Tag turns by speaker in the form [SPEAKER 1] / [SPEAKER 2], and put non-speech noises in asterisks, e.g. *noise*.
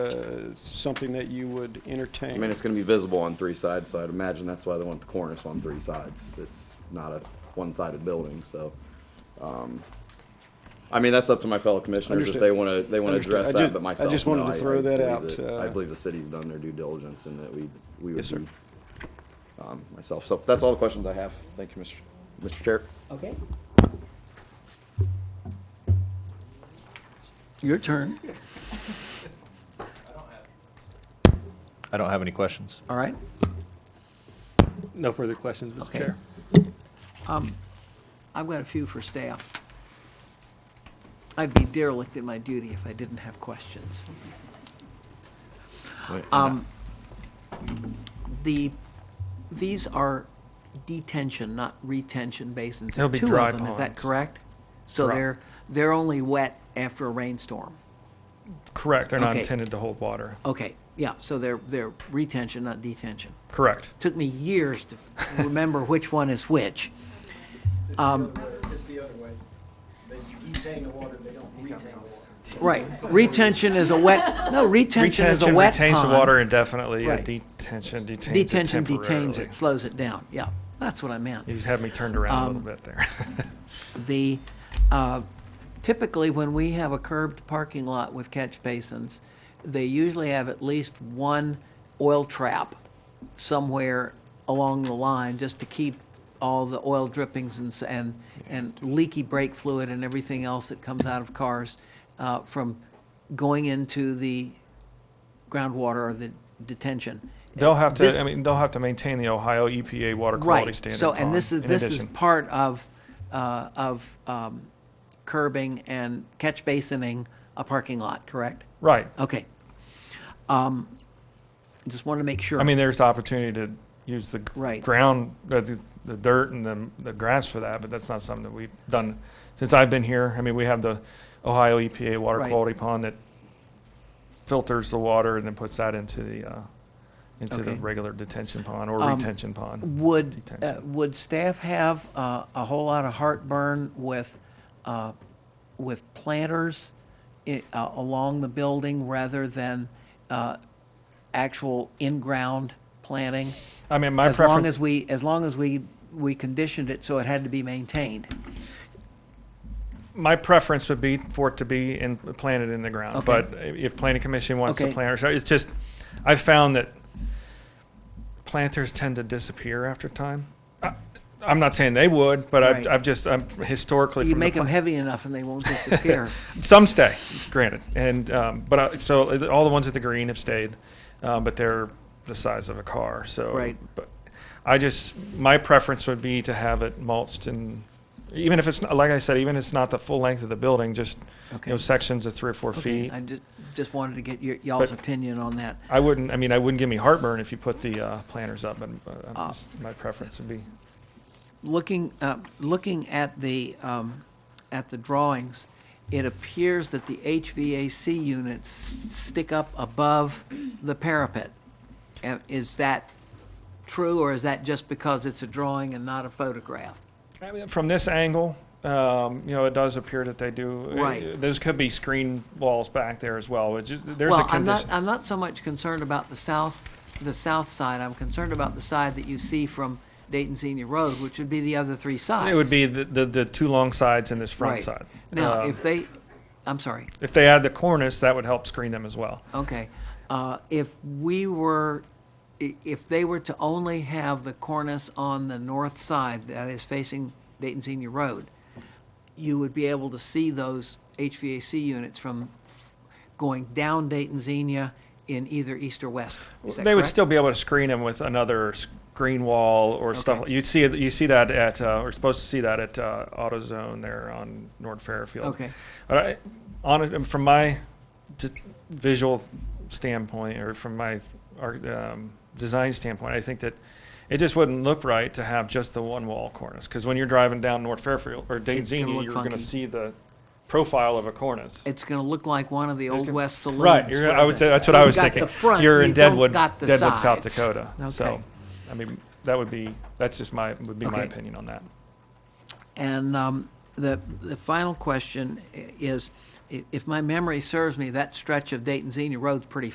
[SPEAKER 1] uh, something that you would
[SPEAKER 2] I mean,
[SPEAKER 1] entertain?
[SPEAKER 2] it's gonna be visible on three sides, so I'd imagine that's why they want the cornice on three sides. It's not a one-sided building, so, um, I mean, that's up to my fellow commissioners if
[SPEAKER 1] Understood.
[SPEAKER 2] they wanna, they wanna
[SPEAKER 1] Understood. I
[SPEAKER 2] address
[SPEAKER 1] ju-
[SPEAKER 2] that, but
[SPEAKER 1] I
[SPEAKER 2] myself.
[SPEAKER 1] just wanted
[SPEAKER 2] no,
[SPEAKER 1] to throw
[SPEAKER 2] I
[SPEAKER 1] that
[SPEAKER 2] believe
[SPEAKER 1] out,
[SPEAKER 2] that-
[SPEAKER 1] uh,
[SPEAKER 2] I believe the city's done their due diligence and that we, we would
[SPEAKER 1] Yes, sir.
[SPEAKER 2] be, um, myself. So that's all the questions I have. Thank you, Mr. Mr. Chair.
[SPEAKER 3] Okay,
[SPEAKER 4] Your turn.
[SPEAKER 5] I don't have any questions.
[SPEAKER 4] All right.
[SPEAKER 6] No further questions, Mr.
[SPEAKER 4] Okay.
[SPEAKER 6] Chair.
[SPEAKER 4] I've got a few for staff. I'd be derelict in my duty if I didn't have questions. Um, The, these are detention, not retention basins. There are
[SPEAKER 7] They'll be
[SPEAKER 4] two of
[SPEAKER 7] dry
[SPEAKER 4] them, Is that
[SPEAKER 7] ponds.
[SPEAKER 4] correct? So
[SPEAKER 7] Correct.
[SPEAKER 4] they're, they're only wet after a rainstorm.
[SPEAKER 7] Correct. They're not
[SPEAKER 4] Okay.
[SPEAKER 7] intended to hold water.
[SPEAKER 4] Okay, yeah, so they're, they're retention, not detention.
[SPEAKER 7] Correct.
[SPEAKER 4] Took me years to remember which one is which. Um,
[SPEAKER 8] It's the other way. They detain the water, they don't retain the water.
[SPEAKER 4] Right. Retention is a wet, no, retention is a
[SPEAKER 7] Retention
[SPEAKER 4] wet
[SPEAKER 7] retains the
[SPEAKER 4] pond.
[SPEAKER 7] water indefinitely.
[SPEAKER 4] Right.
[SPEAKER 7] and Detention detains it
[SPEAKER 4] Detention detains
[SPEAKER 7] temporarily.
[SPEAKER 4] it, slows it down. Yeah, that's what I meant.
[SPEAKER 7] You just had me turned around a
[SPEAKER 4] um,
[SPEAKER 7] little bit there. *laughs*
[SPEAKER 4] The, uh, typically, when we have a curved parking lot with catch basins, they usually have at least one oil trap somewhere along the line just to keep all the oil drippings and, s- and, and leaky brake fluid and everything else that comes out of cars uh, from going into the groundwater or the detention.
[SPEAKER 7] They'll have to,
[SPEAKER 4] This-
[SPEAKER 7] I mean, they'll have to maintain the Ohio EPA water quality
[SPEAKER 4] Right.
[SPEAKER 7] standard.
[SPEAKER 4] So, and this is,
[SPEAKER 7] pond in
[SPEAKER 4] this is
[SPEAKER 7] addition.
[SPEAKER 4] part of, uh, of um, curbing and catch basining a parking lot, correct?
[SPEAKER 7] Right.
[SPEAKER 4] Okay. Um, Just want to make sure.
[SPEAKER 7] I mean, there's the opportunity to use the
[SPEAKER 4] Right.
[SPEAKER 7] ground, uh, the, the dirt and the, the grass for that, but that's not something that we've done since I've been here. I mean, we have the Ohio EPA water
[SPEAKER 4] Right.
[SPEAKER 7] quality pond that filters the water and then puts that into the, uh, into the
[SPEAKER 4] Okay.
[SPEAKER 7] regular detention pond or
[SPEAKER 4] Um,
[SPEAKER 7] retention pond.
[SPEAKER 4] Would, uh,
[SPEAKER 7] Detention.
[SPEAKER 4] would staff have uh, a whole lot of heartburn with, uh, with planters i- uh, along the building rather than uh, actual in-ground planting?
[SPEAKER 7] I mean, my
[SPEAKER 4] as long
[SPEAKER 7] preference,
[SPEAKER 4] as we, as long as we, we conditioned it so it had to be maintained.
[SPEAKER 7] my preference would be for it to be in, planted in the ground.
[SPEAKER 4] Okay.
[SPEAKER 7] But i- if planning commission wants to
[SPEAKER 4] Okay.
[SPEAKER 7] plant, or so- it's just, I've found that planters tend to disappear after time. I- I'm not saying they would, but I've,
[SPEAKER 4] Right.
[SPEAKER 7] I've just, I'm historically.
[SPEAKER 4] You
[SPEAKER 7] from the
[SPEAKER 4] make them
[SPEAKER 7] pla-
[SPEAKER 4] heavy enough and they won't
[SPEAKER 7] *laughs*
[SPEAKER 4] disappear.
[SPEAKER 7] Some stay, granted. And, um, but I, so all the ones at the green have stayed, um, but they're the size of a car, so.
[SPEAKER 4] Right.
[SPEAKER 7] But I just, my preference would be to have it mulched and, even if it's, not like I said, even if it's not the full length of the building, just, you know,
[SPEAKER 4] Okay.
[SPEAKER 7] sections of three or four feet.
[SPEAKER 4] I just, just wanted to get your, y'all's
[SPEAKER 7] But-
[SPEAKER 4] opinion on that.
[SPEAKER 7] I wouldn't, I mean, I wouldn't give me heartburn if you put the, uh, planters up, but, uh, I'm
[SPEAKER 4] Ah.
[SPEAKER 7] just- my preference would be.
[SPEAKER 4] Looking, uh, looking at the, um, at the drawings, it appears that the HVAC units stick up above the parapet. Uh, Is that true or is that just because it's a drawing and not a photograph?
[SPEAKER 7] I mean, from this angle, um, you know, it does appear that they do.
[SPEAKER 4] Right.
[SPEAKER 7] Those could be screen walls back there as well, which is, there's a
[SPEAKER 4] Well, I'm not,
[SPEAKER 7] condition.
[SPEAKER 4] I'm not so much concerned about the south, the south side. I'm concerned about the side that you see from Dayton Senior Road, which would be the other three sides.
[SPEAKER 7] It would be the, the, the two long sides and this front
[SPEAKER 4] Right.
[SPEAKER 7] side.
[SPEAKER 4] Now,
[SPEAKER 7] Um,
[SPEAKER 4] if they, I'm sorry,
[SPEAKER 7] If they add the cornice, that would help screen them as well.
[SPEAKER 4] okay. Uh, If we were, i- if they were to only have the cornice on the north side that is facing Dayton Senior Road, you would be able to see those HVAC units from going down Dayton Senior in either east or west. Is that
[SPEAKER 7] They would
[SPEAKER 4] correct?
[SPEAKER 7] still be able to screen them with another screen wall or stuff.
[SPEAKER 4] Okay.
[SPEAKER 7] You'd see, it- you see that at, uh, we're supposed to see that at, uh, AutoZone there on North Fairfield.
[SPEAKER 4] Okay.
[SPEAKER 7] But I, on, from my d- visual standpoint or from my, art um, design standpoint, I think that it just wouldn't look right to have just the one wall cornice. Cause when you're driving down North Fairfield or Dayton
[SPEAKER 4] It's gonna
[SPEAKER 7] Xenia,
[SPEAKER 4] look
[SPEAKER 7] you're gonna
[SPEAKER 4] funky.
[SPEAKER 7] see the profile of a cornice.
[SPEAKER 4] it's going to look like one of the old
[SPEAKER 7] gonna-
[SPEAKER 4] west saloons.
[SPEAKER 7] Right, you're,
[SPEAKER 4] where
[SPEAKER 7] I was,
[SPEAKER 4] the-
[SPEAKER 7] that's what I
[SPEAKER 4] you've
[SPEAKER 7] was
[SPEAKER 4] got
[SPEAKER 7] thinking.
[SPEAKER 4] The front,
[SPEAKER 7] You're in
[SPEAKER 4] you don't
[SPEAKER 7] Deadwood,
[SPEAKER 4] got the
[SPEAKER 7] Deadwood, South
[SPEAKER 4] sides.
[SPEAKER 7] Dakota. So,
[SPEAKER 4] Okay.
[SPEAKER 7] I mean, that would be, that's just my, would be my
[SPEAKER 4] Okay.
[SPEAKER 7] opinion on that.
[SPEAKER 4] And um, the the final question i- is, i- if my memory serves me, that stretch of Dayton Xenia Road's pretty